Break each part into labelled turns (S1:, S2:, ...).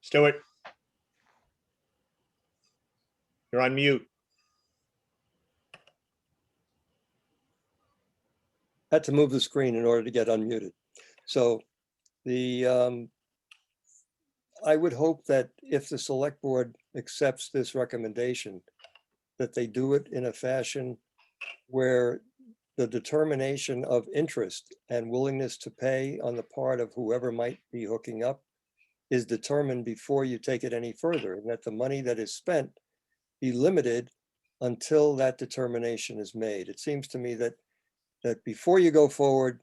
S1: Stuart? You're on mute.
S2: had to move the screen in order to get unmuted. So the, um, I would hope that if the select board accepts this recommendation, that they do it in a fashion where the determination of interest and willingness to pay on the part of whoever might be hooking up is determined before you take it any further, and that the money that is spent be limited until that determination is made. It seems to me that that before you go forward,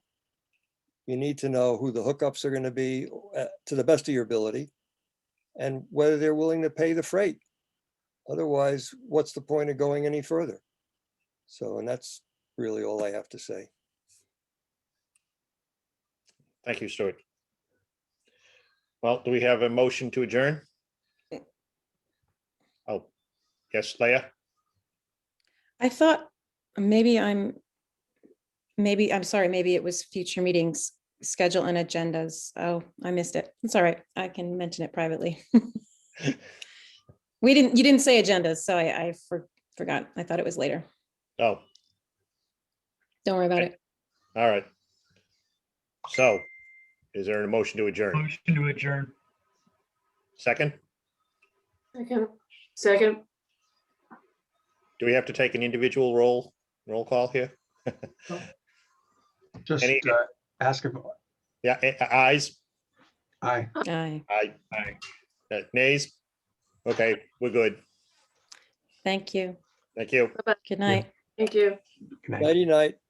S2: you need to know who the hookups are going to be uh, to the best of your ability and whether they're willing to pay the freight. Otherwise, what's the point of going any further? So, and that's really all I have to say.
S1: Thank you, Stuart. Well, do we have a motion to adjourn? Oh, yes, Leah?
S3: I thought maybe I'm, maybe, I'm sorry, maybe it was future meetings, schedule and agendas. Oh, I missed it. It's all right. I can mention it privately. We didn't, you didn't say agendas, so I, I for- forgot. I thought it was later.
S1: Oh,
S3: Don't worry about
S1: Okay.
S3: it.
S1: all right. So is there a motion to adjourn?
S4: Motion to adjourn.
S1: Second,
S5: Second, second,
S1: do we have to take an individual roll, roll call here?
S4: Just
S1: Any-
S4: uh, ask if,
S1: Yeah, a- a- ayes,
S4: aye.
S3: Aye.
S1: aye, Uh, nays? Okay, we're good.
S3: Thank you.
S1: Thank you.
S3: Good night.
S5: thank you.
S4: Good night.
S2: Nighty night.